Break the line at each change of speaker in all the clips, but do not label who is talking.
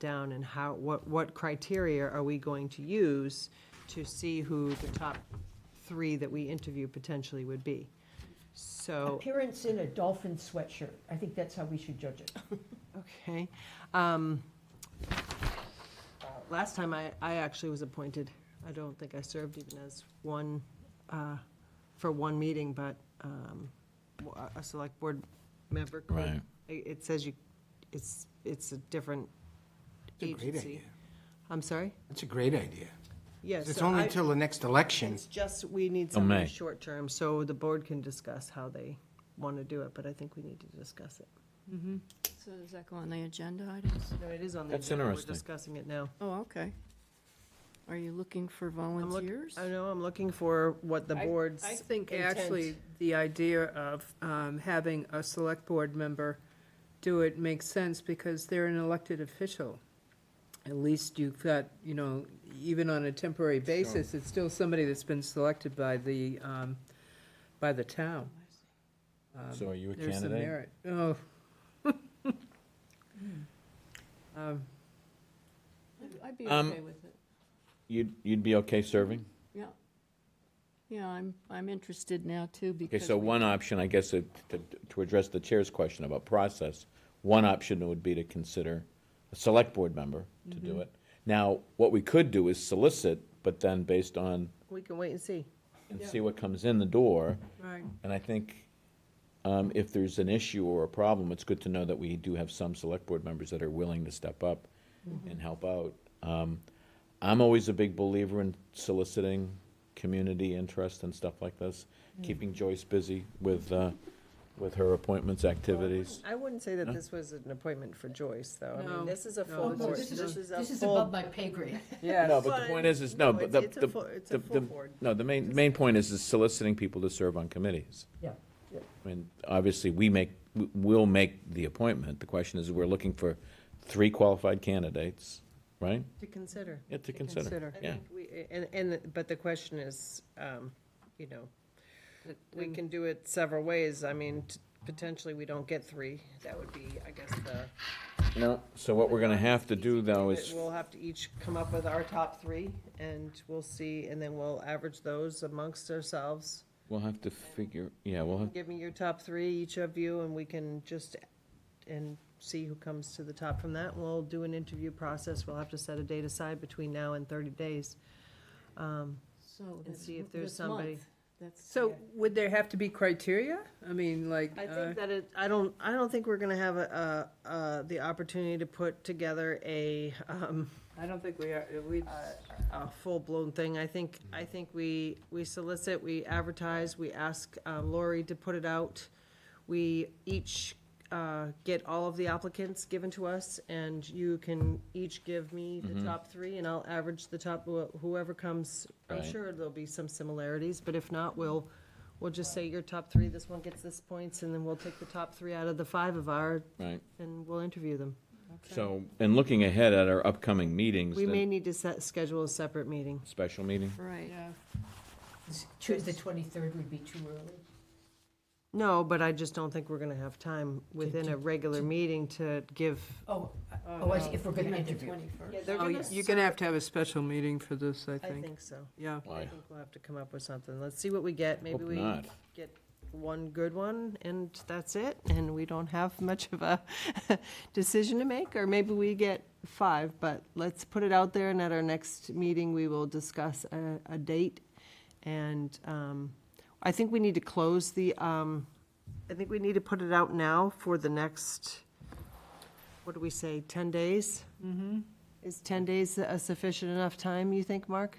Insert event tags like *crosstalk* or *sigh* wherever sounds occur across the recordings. down and how, what, what criteria are we going to use to see who the top three that we interview potentially would be? So,
Appearance in a dolphin sweatshirt. I think that's how we should judge it.
okay. um, uh, Last time I, I actually was appointed. I don't think I served even as one, uh, for one meeting, but um, w- a- a select board member could
Right.
I- It says you, it's, it's a different
It's a great idea.
agency. I'm sorry?
That's a great idea.
Yes.
It's only till the next election.
It's just, we need
Till Oh, May.
something short-term, so the board can discuss how they want to do it, but I think we need to discuss it.
So does that go on the agenda items?
No, it is on the
That's
agenda, we're
interesting.
discussing it now.
Oh, okay. Are you looking for
I'm look-
volunteers?
I know, I'm looking for what the
I-
board's
I think
intent-
actually the idea of um, having a select board member do it makes sense because they're an elected official. At least you've got, you know, even on a temporary basis, it's still somebody that's been selected by the, um, by the town. Um,
So are you a
There's some
candidate?
merit. Oh. Um,
I'd- I'd be
Um,
okay with it.
You'd, you'd be okay serving?
Mm-hmm.
Yeah. Yeah, I'm, I'm interested now too
Okay,
because.
so
we-
one option, I guess, to, to- to address the chair's question about process, one option would be to consider a select board member to
Mm-hmm.
do it. Now, what we could do is solicit, but then based on,
We can wait and see.
and see what comes in the door.
Right.
And I think um, if there's an issue or a problem, it's good to know that we do have some select board members that are willing to step up
Mm-hmm.
and help out. Um, I'm always a big believer in soliciting community interest and stuff like this, keeping Joyce busy with, uh, with her appointments, activities.
I wouldn't say that this was an appointment for Joyce, though. I
No.
mean, this is a
No,
full
this
board,
is-
Oh, this is a
This is above
full.
my pay grade.
Yeah.
No, but the point is, is no,
No,
but the,
it's- it's a
the,
full- it's a
the,
full
the-
board.
no, the main, main point is, is soliciting people to serve on committees.
*laughs* Yeah.
I mean, obviously, we make, w- we'll make the appointment. The question is, we're looking for three qualified candidates, right?
To consider.
Yeah, to
consider.
consider,
I
yeah.
think we, and, and, but the question is, um, you know, we can do it several ways. I mean, t- potentially, we don't get three. That would be, I guess, the.
No, so what we're gonna have to do, though,
that
is,
We'll have to each come up with our top three, and we'll see, and then we'll average those amongst ourselves.
we'll have to figure, yeah, we'll have,
Give me your top three, each of you, and we can just, and see who comes to the top from that. We'll do an interview process. We'll have to set a date aside between now and thirty days.
So
and
this-
see if there's
this
somebody.
month. That's.
So would there have to be criteria? I mean, like.
I
uh,
think that it, I don't, I don't think we're gonna have a, uh, uh, the opportunity to put together a, um,
I don't think we are, we,
a full-blown thing. I think, I think we, we solicit, we advertise, we ask uh, Lori to put it out. We each uh, get all of the applicants given to us, and you can each give me the top three, and I'll average the top, wh- whoever comes. I'm
Right.
sure there'll be some similarities, but if not, we'll, we'll just say your top three, this one gets this points, and then we'll take the top three out of the five of our,
right.
and we'll interview them.
So, and looking ahead at our upcoming meetings,
We may
the
need to set, schedule a separate meeting.
special meeting,
Right.
yeah.
Tuesday, twenty-third would be too early.
No, but I just don't think we're gonna have time within a regular meeting to give.
Oh, oh, I see, if we're gonna
At the
interview.
21st.
Oh, You're gonna have to have a special meeting for this, I
I
think.
think so.
Yeah.
I
Why?
think we'll have to come up with something. Let's see what we get. Maybe
Hope
we
not.
get one good one and that's it, and we don't have much of a *laughs* decision to make, or maybe we get five, but let's put it out there, and at our next meeting, we will discuss a, a date. And, um, I think we need to close the, um, I think we need to put it out now for the next, what do we say, ten days? Mm-hmm. Is ten days a sufficient enough time, you think, Mark?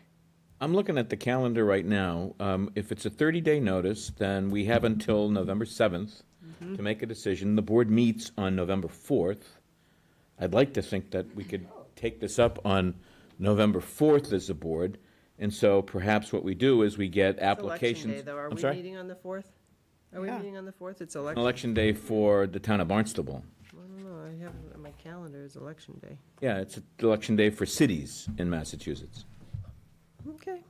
I'm looking at the calendar right now. Um, If it's a 30-day notice, then we have until November 7th
Mm-hmm.
to make a decision. The board meets on November 4th. I'd like to think that we could take this up on November 4th as a board, and so perhaps what we do is we get
It's Election
applications.
day, though, are
I'm
we
sorry?
meeting on the fourth? Are we
Yeah.
meeting on the fourth? It's election, I
Election day for the town of Barnstable.
don't know, I have, it on my calendar is election day.
Yeah, it's election day for cities in Massachusetts.
Okay,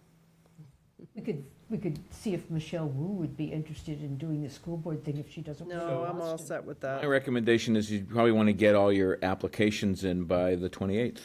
We could we could see if Michelle Wu would be interested in doing the school board thing if she doesn't. live in
No, I'm all
Boston.
set with
My
that.
recommendation is you probably want to get all your applications in by the 28th.